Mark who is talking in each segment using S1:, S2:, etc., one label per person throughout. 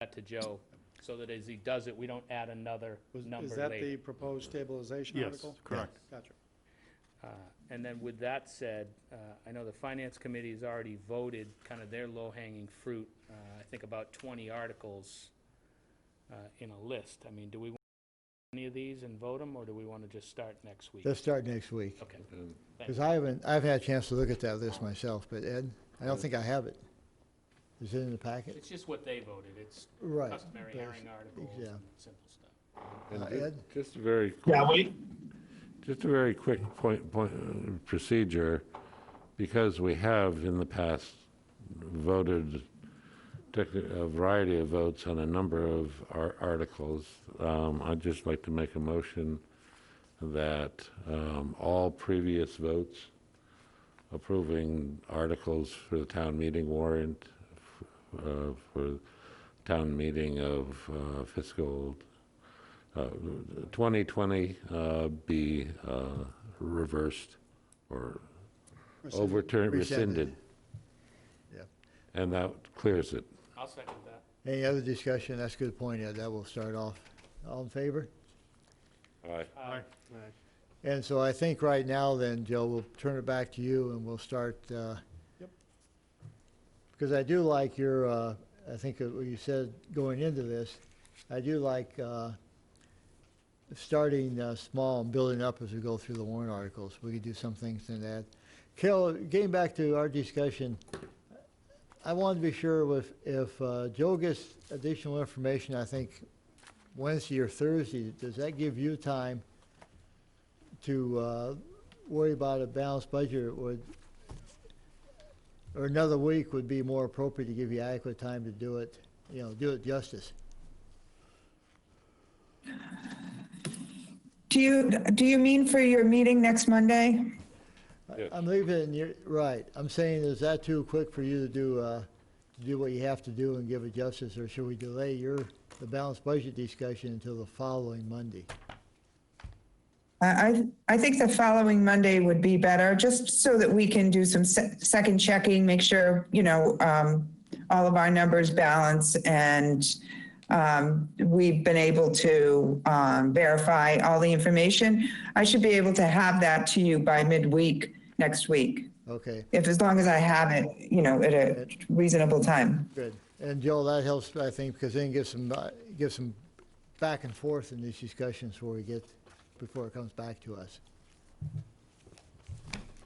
S1: that to Joe, so that as he does it, we don't add another
S2: Was-
S1: number
S2: Is that the
S1: later.
S2: proposed stabilization
S3: Yes,
S2: article?
S3: correct.
S2: Gotcha.
S1: Uh, And then with that said, uh, I know the Finance Committee has already voted kind of their low-hanging fruit, uh, I think about 20 articles uh, in a list. I mean, do we want any of these and vote them, or do we want to just start next week?
S4: Let's start next week.
S1: Okay,
S4: Because I haven't, I've had a chance to look at that list myself, but Ed, I don't think I have it. Is it in the packet?
S1: it's just what they voted, it's
S4: Right.
S1: customary
S4: Yes,
S1: herring articles
S4: yeah.
S1: and simple stuff.
S3: And
S4: Uh,
S3: ju-
S4: Ed?
S3: Just a very, quick-
S5: Yeah, we,
S3: just a very quick point, point, uh, procedure, because we have in the past voted tech- a variety of votes on a number of ar- articles. Um, I'd just like to make a motion that um, all previous votes approving articles for the town meeting warrant, f- uh, for town meeting of uh, fiscal uh, 2020 uh, be uh, reversed or
S4: Rescinded.
S3: overturned, rescinded.
S4: Rescinded. Yep.
S3: And that clears it.
S1: I'll second that.
S4: Any other discussion? That's a good point, Ed. That will start off. All in favor?
S3: Aye.
S1: Uh,
S4: And so I think right now then, Joe, we'll turn it back to you and we'll start, uh.
S2: Yep.
S4: Because I do like your, uh, I think that what you said going into this, I do like, uh, starting, uh, small and building up as we go through the warrant articles. We could do some things in that. Carol, getting back to our discussion, I wanted to be sure with, if, uh, Joe gets additional information, I think Wednesday or Thursday, does that give you time to uh, worry about a balanced budget would, or another week would be more appropriate to give you adequate time to do it, you know, do it justice.
S5: do you, do you mean for your meeting next Monday?
S4: I-
S3: Yes.
S4: I'm leaving, it in your right, I'm saying, is that too quick for you to do, uh, to do what you have to do and give it justice, or should we delay your, the balanced budget discussion until the following Monday?
S5: I, I, I think the following Monday would be better, just so that we can do some se- second checking, make sure, you know, um, all of our numbers balance and, um, we've been able to, um, verify all the information. I should be able to have that to you by midweek next week,
S4: Okay,
S5: if, as long as I have it, you know, at a reasonable time.
S4: good. And Joel, that helps, I think, because then give some, uh, give some back and forth in these discussions where we get, before it comes back to us.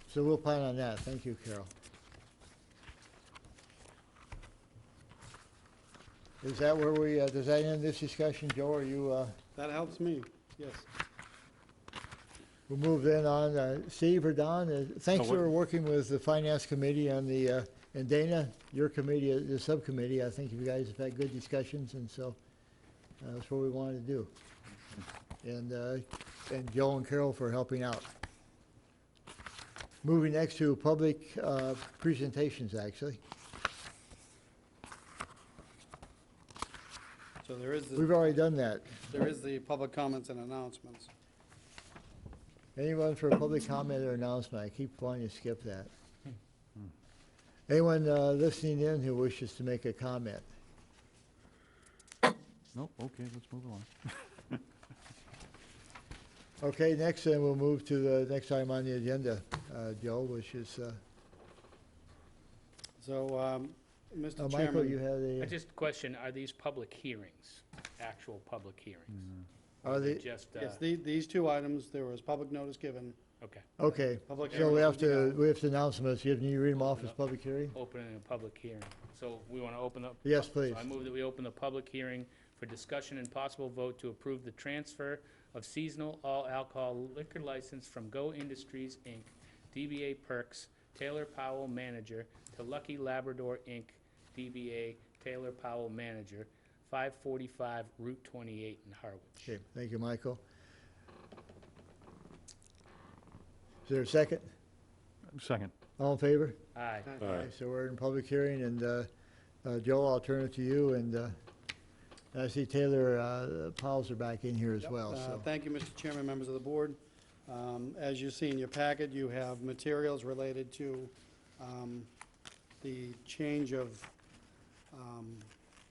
S4: So we'll plan on that. Thank you, Carol. Is that where we, uh, does that end this discussion, Joe? Are you, uh,
S2: That helps me, yes.
S4: we'll move then on, uh, Steve or Don? uh, Thanks
S3: Oh, what-
S4: for working with the Finance Committee and the, uh, and Dana, your committee, uh, the subcommittee. I think you guys have had good discussions, and so uh, that's what we wanted to do. And, uh, and Joe and Carol for helping out. Moving next to public uh, presentations, actually.
S2: So there is, the-
S4: We've already done that.
S2: there is the public comments and announcements.
S4: Anyone for a public comment or announcement? I keep wanting to skip that. Anyone uh, listening in who wishes to make a comment?
S6: Nope, okay, let's move along.
S4: Okay, next then we'll move to the next item on the agenda, uh, Joe, which is, uh,
S2: So, um,
S4: oh,
S2: Mr.
S4: Michael, you
S2: Chairman,
S1: I
S4: had a,
S1: just question, are these public hearings, actual public hearings?
S4: are
S1: They're
S4: the,
S1: Just, uh,
S2: yes, the- these two items, there was public notice given.
S1: okay,
S4: okay.
S2: Public
S4: So we
S2: hearing
S4: have
S2: will be
S4: to,
S2: held.
S4: we have to announcements. You have, you read them off as public hearing?
S1: opening a public hearing. So we want to open up?
S4: Yes,
S1: so
S4: please.
S1: I move that we open the public hearing for discussion and possible vote to approve the transfer of seasonal all alcohol liquor license from Go Industries, Inc., DBA Perks, Taylor Powell Manager, to Lucky Labrador, Inc., DBA Taylor Powell Manager, 545 Route 28 in Harwich.
S4: Okay, thank you, Michael. Is there a second?
S6: Second.
S4: All in favor?
S1: Aye.
S2: Uh,
S3: Aye.
S4: Okay, So we're in public hearing, and uh, uh, Joe, I'll turn it to you, and uh, I see Taylor uh, Powell's are back in here as
S2: Yep.
S4: well,
S2: Uh,
S4: so.
S2: Thank you, Mr. Chairman, members of the board. Um, As you see in your packet, you have materials related to um, the change of um,